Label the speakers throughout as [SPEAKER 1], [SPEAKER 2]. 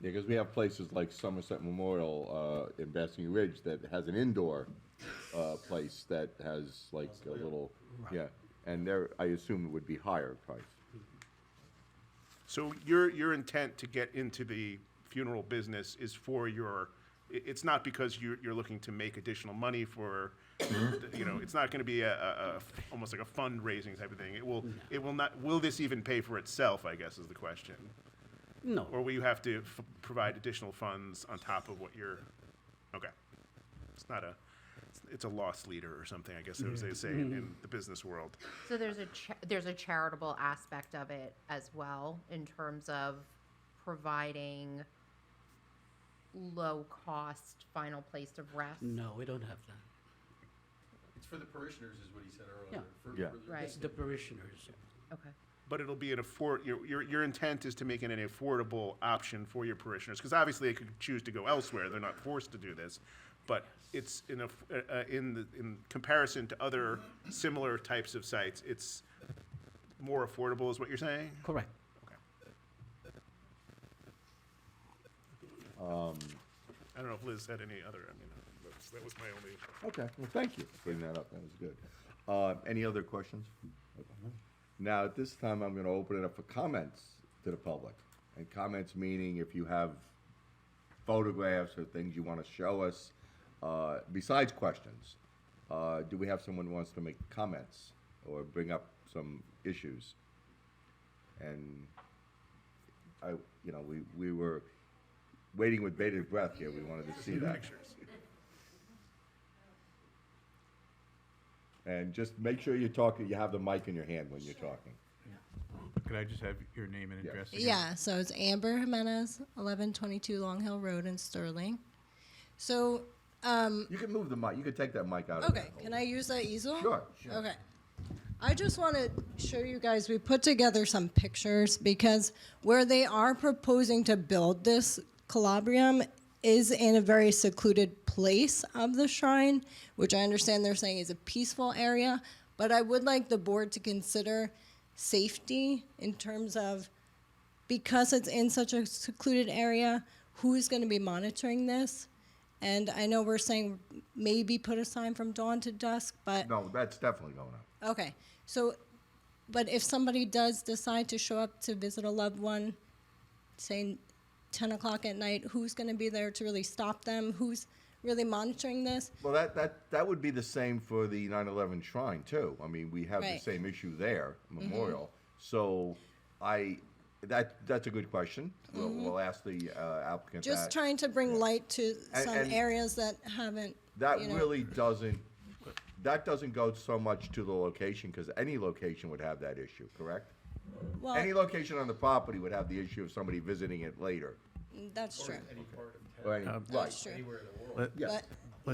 [SPEAKER 1] Yeah, because we have places like Somerset Memorial uh, in Basking Ridge that has an indoor uh, place that has like a little, yeah, and there, I assume it would be higher price.
[SPEAKER 2] So your, your intent to get into the funeral business is for your, i- it's not because you're, you're looking to make additional money for, you know, it's not gonna be a, a, a- almost like a fundraising type of thing. It will, it will not, will this even pay for itself, I guess, is the question?
[SPEAKER 3] No,
[SPEAKER 2] Or will you have to f- provide additional funds on top of what you're, okay. It's not a, it's a loss leader or something, I guess, as they say in in the business world.
[SPEAKER 4] So there's a, cha- there's a charitable aspect of it as well in terms of providing low-cost final place of rest.
[SPEAKER 3] no, we don't have that.
[SPEAKER 5] It's for the parishioners, is what he said
[SPEAKER 3] Yeah.
[SPEAKER 5] earlier. for-
[SPEAKER 1] Yeah.
[SPEAKER 5] for the-
[SPEAKER 4] Right.
[SPEAKER 3] It's the parishioners.
[SPEAKER 4] Okay.
[SPEAKER 2] But it'll be an afford, your, your, your intent is to make it an affordable option for your parishioners, because obviously they could choose to go elsewhere, they're not forced to do this. But it's in a, uh, in the, in comparison to other similar types of sites, it's more affordable is what you're saying?
[SPEAKER 3] Correct.
[SPEAKER 2] Um, I don't know if Liz had any other, I mean, that's, that was my only.
[SPEAKER 1] Okay, well, thank you for bringing that up, that was good. Uh, Any other questions? Now, at this time, I'm gonna open it up for comments to the public. And comments meaning if you have photographs or things you wanna show us, uh, besides questions. Uh, Do we have someone who wants to make comments or bring up some issues? And I, you know, we, we were waiting with bated breath here, we wanted to see that. And just make sure you're talking, you have the mic in your hand when you're talking.
[SPEAKER 6] Could I just have your name and
[SPEAKER 1] Yeah.
[SPEAKER 6] address? again?
[SPEAKER 7] Yeah, so it's Amber Jimenez, 1122 Long Hill Road in Sterling. So,
[SPEAKER 1] You can move the mic, you can take that mic out of
[SPEAKER 7] okay,
[SPEAKER 1] there.
[SPEAKER 7] can I use that easel?
[SPEAKER 1] Sure, sure.
[SPEAKER 7] Okay. I just want to show you guys, we put together some pictures because where they are proposing to build this calabrium is in a very secluded place of the shrine, which I understand they're saying is a peaceful area. But I would like the board to consider safety in terms of because it's in such a secluded area, who's going to be monitoring this? And I know we're saying maybe put a sign from dawn to dusk, but
[SPEAKER 1] No, that's definitely going up.
[SPEAKER 7] Okay, so, but if somebody does decide to show up to visit a loved one, say ten o'clock at night, who's gonna be there to really stop them? Who's really monitoring this?
[SPEAKER 1] Well, that, that, that would be the same for the 9/11 shrine too. I mean, we have the
[SPEAKER 7] Right. Mm-hmm.
[SPEAKER 1] same issue there, memorial. So I, that, that's a good question. We'll, we'll ask the uh, applicant that.
[SPEAKER 7] Mm-hmm. Just trying to bring light to
[SPEAKER 1] And-
[SPEAKER 7] some
[SPEAKER 1] and-
[SPEAKER 7] areas that haven't,
[SPEAKER 1] That
[SPEAKER 7] you know.
[SPEAKER 1] really doesn't, that doesn't go so much to the location, because any location would have that issue, correct?
[SPEAKER 7] Well-
[SPEAKER 1] Any location on the property would have the issue of somebody visiting it later.
[SPEAKER 7] That's true,
[SPEAKER 5] Any part of town,
[SPEAKER 1] Or any, right.
[SPEAKER 7] that's true.
[SPEAKER 5] anywhere in the world.
[SPEAKER 6] Let-
[SPEAKER 1] Yeah.
[SPEAKER 7] But,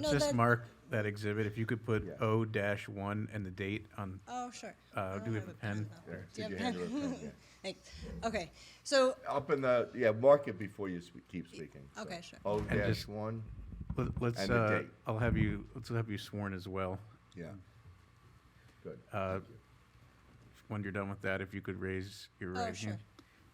[SPEAKER 6] Let's
[SPEAKER 7] no,
[SPEAKER 6] just
[SPEAKER 7] that-
[SPEAKER 6] mark that exhibit, if you could put
[SPEAKER 1] Yeah.
[SPEAKER 6] O dash one and the date on,
[SPEAKER 7] Oh, sure. I
[SPEAKER 6] uh,
[SPEAKER 7] don't
[SPEAKER 6] do we have a pen?
[SPEAKER 7] though.
[SPEAKER 1] There,
[SPEAKER 7] Do you
[SPEAKER 1] did
[SPEAKER 7] have
[SPEAKER 1] you
[SPEAKER 7] a
[SPEAKER 1] hand
[SPEAKER 7] pen?
[SPEAKER 1] it up?
[SPEAKER 7] Thanks. Okay, so,
[SPEAKER 1] Up in the, yeah, mark it before you spe- keep speaking. so.
[SPEAKER 7] okay, sure.
[SPEAKER 1] O dash
[SPEAKER 6] just-
[SPEAKER 1] one,
[SPEAKER 6] Let- Let's,
[SPEAKER 1] And the
[SPEAKER 6] uh,
[SPEAKER 1] date.
[SPEAKER 6] I'll have you, let's have you sworn as well.
[SPEAKER 1] yeah. Good.
[SPEAKER 6] Uh, When you're done with that, if you could raise your
[SPEAKER 7] Oh,
[SPEAKER 6] right
[SPEAKER 7] sure.
[SPEAKER 6] hand.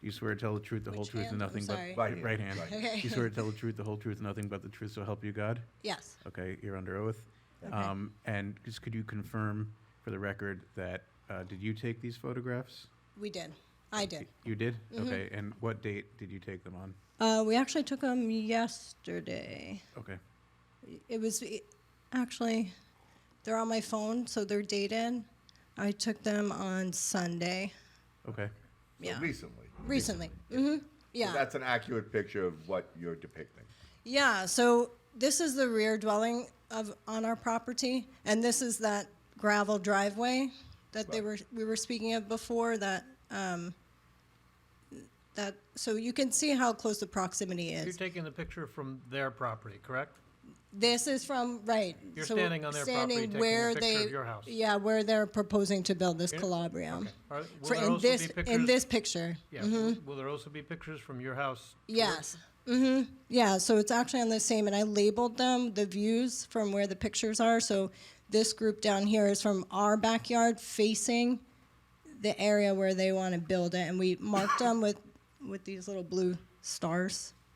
[SPEAKER 6] You swear to tell the truth, the whole
[SPEAKER 7] Which
[SPEAKER 6] truth, and
[SPEAKER 7] hand? I'm
[SPEAKER 6] nothing but.
[SPEAKER 7] sorry.
[SPEAKER 1] Right hand,
[SPEAKER 6] Right hand.
[SPEAKER 1] right
[SPEAKER 7] hand.
[SPEAKER 6] You swear to tell the truth, the whole truth, and nothing but the truth, so help you God?
[SPEAKER 7] yes,
[SPEAKER 6] Okay, you're under oath.
[SPEAKER 7] Okay.
[SPEAKER 6] Um, And just could you confirm for the record that, uh, did you take these photographs?
[SPEAKER 7] we did, I did.
[SPEAKER 6] You did?
[SPEAKER 7] Mm-hmm.
[SPEAKER 6] Okay, and what date did you take them on?
[SPEAKER 7] Uh, we actually took them yesterday.
[SPEAKER 6] Okay.
[SPEAKER 7] It was it- actually, they're on my phone, so they're dated. I took them on Sunday.
[SPEAKER 6] Okay.
[SPEAKER 1] So
[SPEAKER 7] Yeah.
[SPEAKER 1] recently.
[SPEAKER 7] Recently. hmm
[SPEAKER 1] So
[SPEAKER 7] Yeah.
[SPEAKER 1] That's an accurate picture of what you're depicting.
[SPEAKER 7] Yeah. So this is the rear dwelling of on our property, and this is that gravel driveway that they were we were speaking of before. That um, that so you can see how close the proximity
[SPEAKER 8] You're
[SPEAKER 7] is.
[SPEAKER 8] taking the picture from their property, correct?
[SPEAKER 7] This is from right.
[SPEAKER 8] You're
[SPEAKER 7] so
[SPEAKER 8] standing on their property,
[SPEAKER 7] standing
[SPEAKER 8] taking a
[SPEAKER 7] where
[SPEAKER 8] picture
[SPEAKER 7] they
[SPEAKER 8] of your house.
[SPEAKER 7] yeah where they're proposing to build this
[SPEAKER 8] Here?
[SPEAKER 7] calabrium.
[SPEAKER 8] Are- will
[SPEAKER 7] For
[SPEAKER 8] there
[SPEAKER 7] in
[SPEAKER 8] also be
[SPEAKER 7] this in
[SPEAKER 8] pictures-
[SPEAKER 7] this mm-hmm. picture.
[SPEAKER 8] Yeah. Will there also be pictures from your house?
[SPEAKER 7] Yes. hmm Yeah. So it's actually on the same, and I labeled them the views from where the pictures are. So this group down here is from our backyard facing the area where they want to build it, and we marked them with with these little blue stars.